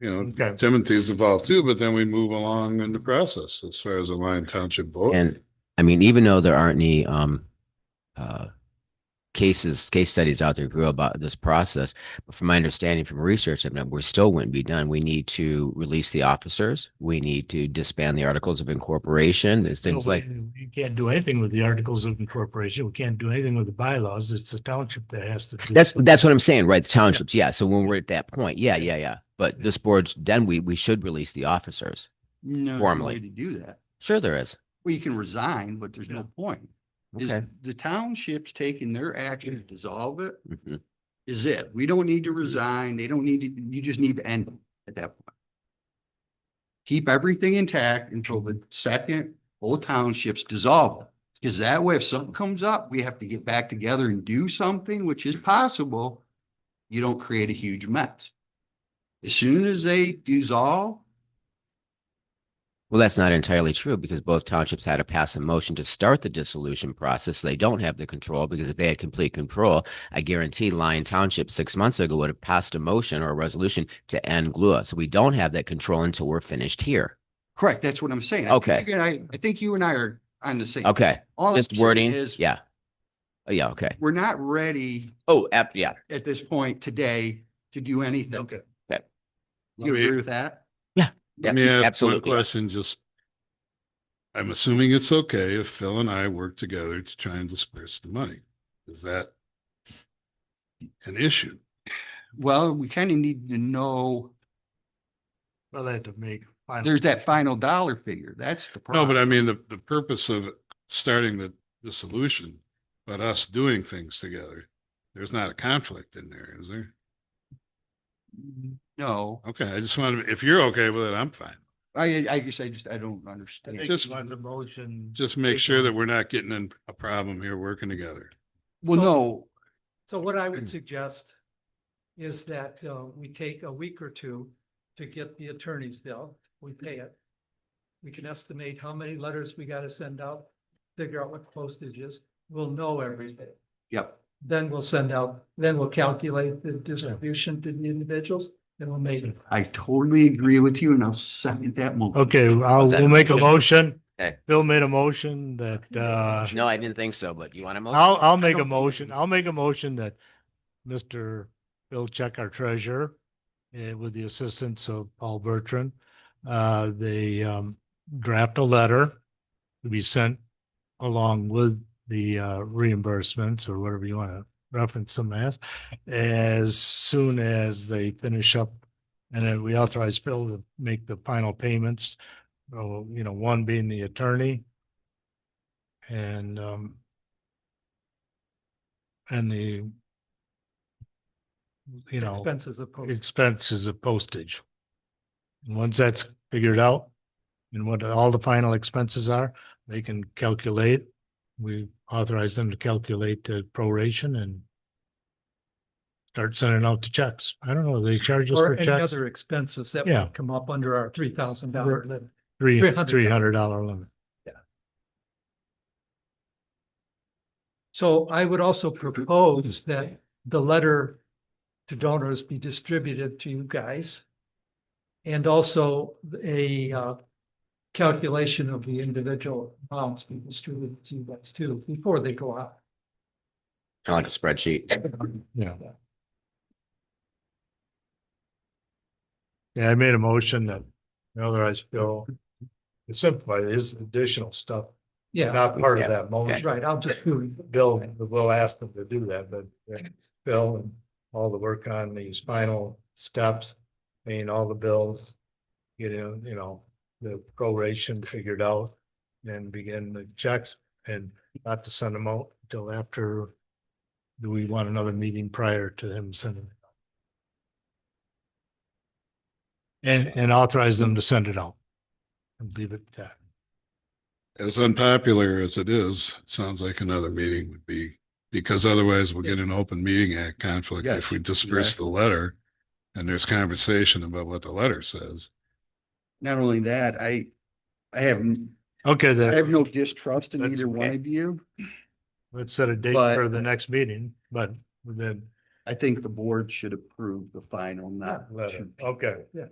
you know, Okay. Timothy's involved too, but then we move along in the process as far as the Lion Township Board. And I mean, even though there aren't any um, uh, cases, case studies out there grew about this process, but from my understanding from research, I mean, we still wouldn't be done. We need to release the officers. We need to disband the articles of incorporation. There's things like You can't do anything with the articles of incorporation. We can't do anything with the bylaws. It's the township that has to. do that's something. that's what I'm saying, right? The townships, yeah. So when we're at that point, yeah, yeah, yeah. But this board, then we we should release the officers. No, no Formally. way to do that. Sure, there is. Well, you can resign, but there's Yeah. no point. Is Okay. the township's taking their action to dissolve it Mhm. is it. We don't need to resign. They don't need to, you just need to end them at that point. Keep everything intact until the second whole townships dissolve. Because that way, if something comes up, we have to get back together and do something, which is possible. You don't create a huge mess. As soon as they dissolve, Well, that's not entirely true because both townships had to pass a motion to start the dissolution process. They don't have the control because if they had complete control, I guarantee Lyon Township six months ago would have passed a motion or a resolution to end GLUA. So we don't have that control until we're finished here. correct, that's what I'm saying. I think Okay. you and I, I think you and I are on the same. Okay, All I'm just saying wording. Is Yeah. Oh, yeah. Okay. we're not ready Oh, ab- yeah. at this point today to do anything. Okay. You agree with that? Let me ask one absolutely. question, just. I'm assuming it's okay if Phil and I work together to try and disperse the money. Is that? An issue? Well, we kind of need to know, Well, they had to make. final- there's that final dollar figure. That's the No, problem. but I mean, the, the purpose of starting the, the solution, but us doing things together. There's not a conflict in there, is there? No, Okay, I just wanted, to- if you're okay with it, I'm fine. I, I guess I just, I don't I understand. think Just- you want the motion. Just make sure that we're not getting in a problem here working together. Well, no, So what I Mm. would suggest is that uh, we take a week or two to get the attorney's bill. We pay it. We can estimate how many letters we got to send out, figure out what postage is. We'll know everything. yep, Then we'll send out, then we'll calculate the distribution to the individuals and we'll make it. I totally agree with you and I'll second that motion. Okay, I'll, Was that a we'll make a motion? motion. Okay. Bill made a motion that, uh, No, I didn't think so, but you want to? I'll, I'll I make don't a think- motion. I'll make a motion that Mr. Bill Check, our treasurer, eh, with the assistance of Paul Bertrand, uh, they, um, draft a letter to be sent along with the, uh, reimbursements or whatever you want to reference them as, as soon as they finish up. And then we authorize Phil to make the final payments, oh, you know, one being the attorney. And, um, and the you know, Expenses of postage. expenses of postage. And once that's figured out and what all the final expenses are, they can calculate. We authorize them to calculate the proration and start sending out the checks. I don't know, they charge us Or for any checks, other expenses that Yeah. would come up under our three thousand dollar limit. three, $300. three hundred dollar limit. So I would also propose that the letter to donors be distributed to you guys. And also a uh, calculation of the individual amounts be distributed to you guys too, before they go out. Kind of like a spreadsheet. Yeah. Yeah, I made a motion that otherwise Bill, to simplify this additional stuff, Yeah, not part Yeah. of that motion. right, I'll just do Bill, we'll ask them to do that, but uh, Bill and all the work on these final steps, paying all the bills. You know, you know, the proration figured out, then begin the checks and not to send them out until after. Do we want another meeting prior to him sending? it out? And, and authorize them to send it out. And leave it at that. As unpopular as it is, it sounds like another meeting would be, because otherwise we'll get an open meeting act conflict if Yes, we disperse the letter. And there's conversation about what the letter says. Not only that, I, I have, n- Okay, I have then, no distrust in That's either one okay. of you. let's set a date But- for the next meeting, but then I think the board should approve the final, not letter. to- Okay.